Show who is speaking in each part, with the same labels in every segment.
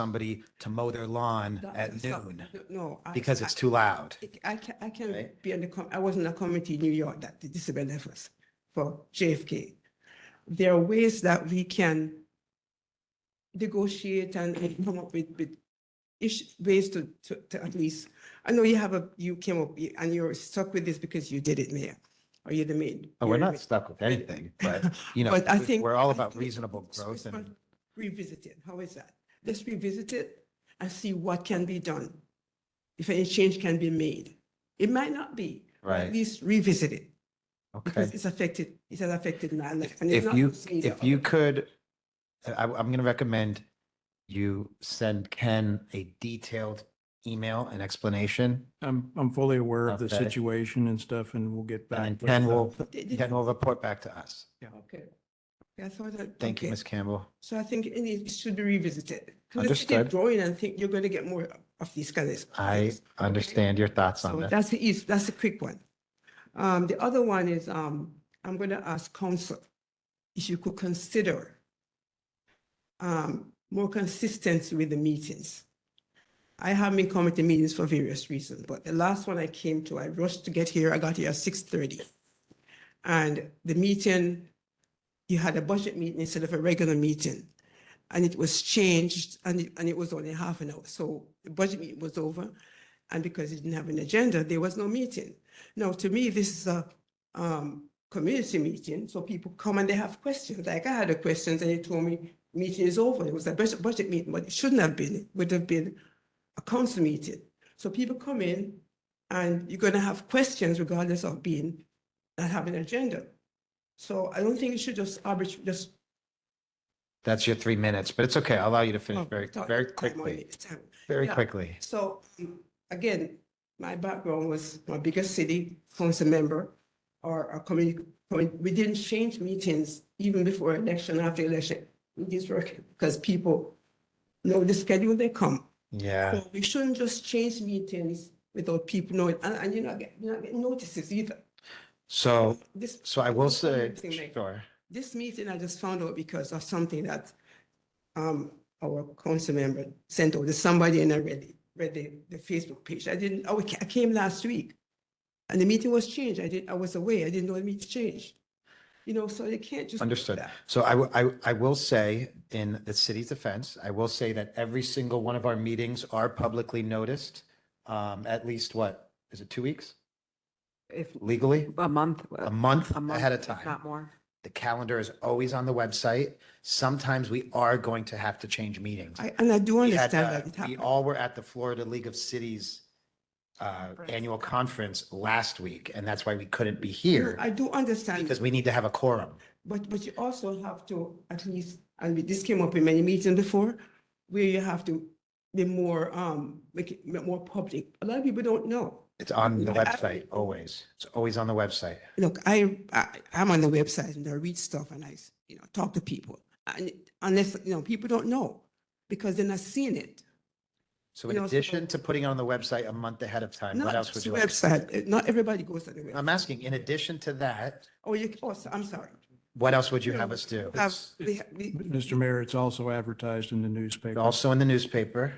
Speaker 1: somebody to mow their lawn
Speaker 2: That-
Speaker 1: at
Speaker 2: that-
Speaker 1: noon
Speaker 2: No. I-
Speaker 1: because it's
Speaker 2: I-
Speaker 1: too loud.
Speaker 2: I can, I can
Speaker 1: Right?
Speaker 2: be on the, com- I was in a committee in New York that did this benefits for JFK. There are ways that we can negotiate and and come up with, with ish, ways to, to, to at least, I know you have a, you came up you- and you're stuck with this because you did it, Mayor, or you're the maid.
Speaker 1: Oh, We're not stuck with anything, but you know,
Speaker 2: But I
Speaker 1: we-
Speaker 2: think-
Speaker 1: we're all
Speaker 2: I
Speaker 1: about
Speaker 2: think
Speaker 1: reasonable growth and
Speaker 2: Revisit it. How is that? Let's revisit it and see what can be done. If any change can be made. It might not be. but At
Speaker 1: Right.
Speaker 2: least revisit it because
Speaker 1: okay.
Speaker 2: it's affected, it has affected my life. and it's
Speaker 1: If
Speaker 2: not
Speaker 1: you,
Speaker 2: just me.
Speaker 1: if you could, uh, I, I'm going to recommend you send Ken a detailed email and explanation.
Speaker 3: I'm, I'm fully aware of the
Speaker 1: Okay.
Speaker 3: situation and stuff and we'll get back.
Speaker 1: And
Speaker 3: with uh,
Speaker 1: Ken
Speaker 3: the-
Speaker 1: will,
Speaker 2: Did- did-
Speaker 1: Ken will report back to us.
Speaker 2: Okay. Yeah, I thought that.
Speaker 1: Thank you,
Speaker 2: okay.
Speaker 1: Ms. Campbell.
Speaker 2: So I think it needs- it should be revisited. Because if you keep
Speaker 1: Understood.
Speaker 2: growing and think you're going to get more of these kind of.
Speaker 1: I
Speaker 2: things.
Speaker 1: understand your thoughts on
Speaker 2: So
Speaker 1: that.
Speaker 2: that's the easy, that's the quick one. Um, the other one is, um, I'm gonna ask council if you could consider um, more consistency with the meetings. I have been coming to meetings for various reasons, but the last one I came to, I rushed to get here, I got here at six thirty. And the meeting, you had a budget meeting instead of a regular meeting. And it was changed and it, and it was only half an hour, so the budget meeting was over. And because it didn't have an agenda, there was no meeting. Now, to me, this is a um, community meeting, so people come and they have questions. Like I had a question, and they told me meeting is over. It was a budget, budget meeting, but it shouldn't have been. It would have been a council meeting. So people come in, and you're going to have questions regardless of being not having an agenda. So I don't think you should just arbitrarily just
Speaker 1: That's your three minutes, but it's okay. I'll allow you to finish
Speaker 2: oh,
Speaker 1: very,
Speaker 2: thought-
Speaker 1: very
Speaker 2: time on
Speaker 1: quickly,
Speaker 2: it, time.
Speaker 1: very
Speaker 2: Yeah.
Speaker 1: quickly.
Speaker 2: So um, again, my background was my biggest city council member or a community, we didn't change meetings even before election, after election. Meetings were, because people know the schedule, they come.
Speaker 1: Yeah.
Speaker 2: So we shouldn't just change meetings without people knowing, and, and you're not getting, you're not getting notices either.
Speaker 1: So,
Speaker 2: This,
Speaker 1: so I will
Speaker 2: Just one
Speaker 1: say,
Speaker 2: more thing, Meg.
Speaker 1: sure.
Speaker 2: this meeting I just found out because of something that um our council member sent over to somebody and I read it, read the, the Facebook page. I didn't, oh, I came last week. And the meeting was changed. I did, I was away. I didn't know the meeting changed. You know, so they can't just. do
Speaker 1: Understood.
Speaker 2: that.
Speaker 1: So I, wi- I, I will say in the city's defense, I will say that every single one of our meetings are publicly noticed. Um, at least what, is it two weeks
Speaker 4: if
Speaker 1: legally?
Speaker 4: a month, uh,
Speaker 1: A month
Speaker 4: a month
Speaker 1: ahead of
Speaker 4: if
Speaker 1: time.
Speaker 4: Not more.
Speaker 1: The calendar is always on the website. Sometimes we are going to have to change meetings.
Speaker 2: I, and I do
Speaker 1: We had,
Speaker 2: understand
Speaker 1: uh,
Speaker 2: that it
Speaker 1: We
Speaker 2: happened.
Speaker 1: all were at the Florida League of Cities uh, annual conference last week, and that's why we couldn't be
Speaker 2: No,
Speaker 1: here
Speaker 2: I do understand.
Speaker 1: because we need to have a quorum.
Speaker 2: But, but you also have to, at least, and we- this came up in many meetings before, where you have to be more, um, make it more public. A lot of people don't know.
Speaker 1: It's on the
Speaker 2: No, I-
Speaker 1: website, always. It's always on the website.
Speaker 2: Look, I, I, I'm on the website and I read stuff and I, you know, talk to people. And it- unless, you know, people don't know because they're not seeing it.
Speaker 1: So in
Speaker 2: You know, so-
Speaker 1: addition to putting it on the website a month ahead of time,
Speaker 2: Not
Speaker 1: what else
Speaker 2: just
Speaker 1: would
Speaker 2: the
Speaker 1: you like?
Speaker 2: website, eh, not everybody goes to the website.
Speaker 1: I'm asking, in addition to that,
Speaker 2: Oh, you, oh, so- I'm sorry.
Speaker 1: what else would you have us do?
Speaker 2: Have,
Speaker 3: It's-
Speaker 2: we, ha- we,
Speaker 3: Mr. Mayor, it's also advertised in the newspaper.
Speaker 1: Also in the newspaper,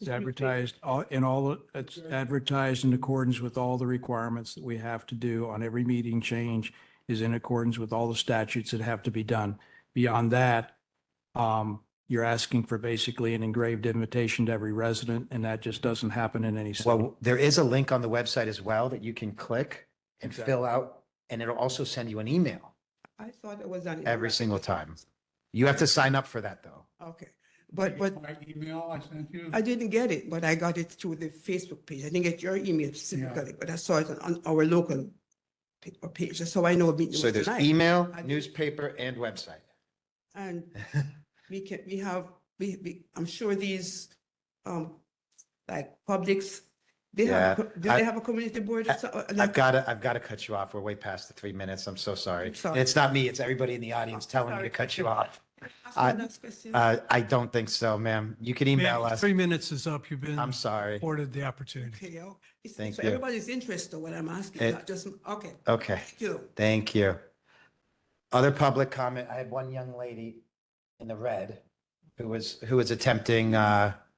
Speaker 3: It's advertised all- in all, it's advertised in accordance with all the requirements that we have to do on every meeting change is in accordance with all the statutes that have to be done. Beyond that, um, you're asking for basically an engraved invitation to every resident and that just doesn't happen in any. city.
Speaker 1: well, there is a link on the website as well that you can click and
Speaker 3: Exactly.
Speaker 1: fill out, and it'll also send you an email
Speaker 2: I thought it was done. in-
Speaker 1: every single time. You have to sign up for that, though.
Speaker 2: Okay, but, but
Speaker 5: My email I sent you?
Speaker 2: I didn't get it, but I got it through the Facebook page. I didn't get your email specifically, but I saw it on- on our local pa- uh, page. So I know it was
Speaker 1: So there's
Speaker 2: tonight.
Speaker 1: email,
Speaker 2: I did-
Speaker 1: newspaper, and website.
Speaker 2: And we can, we have, we, we, I'm sure these, um, like publics, they have,
Speaker 1: Yeah,
Speaker 2: co- do
Speaker 1: I-
Speaker 2: they have a community board? or so- uh,
Speaker 1: I've
Speaker 2: like-
Speaker 1: got to, I've got to cut you off. We're way past the three minutes. I'm so sorry.
Speaker 2: I'm sorry.
Speaker 1: And it's not me, it's everybody in the audience telling me to
Speaker 2: sorry.
Speaker 1: cut you off.
Speaker 2: Ask
Speaker 1: I-
Speaker 2: the next question.
Speaker 1: Uh, I don't think so, ma'am. You can
Speaker 6: Ma'am,
Speaker 1: email us.
Speaker 6: Three minutes is up. You've been
Speaker 1: I'm sorry.
Speaker 6: afforded the opportunity.
Speaker 2: Okay, yo. It's-
Speaker 1: thank
Speaker 2: so
Speaker 1: you.
Speaker 2: Everybody's interested in what I'm
Speaker 1: It-
Speaker 2: asking, not just, okay,
Speaker 1: Okay,
Speaker 2: thank you.
Speaker 1: thank you. Other public comment, I had one young lady in the red who was, who was attempting uh,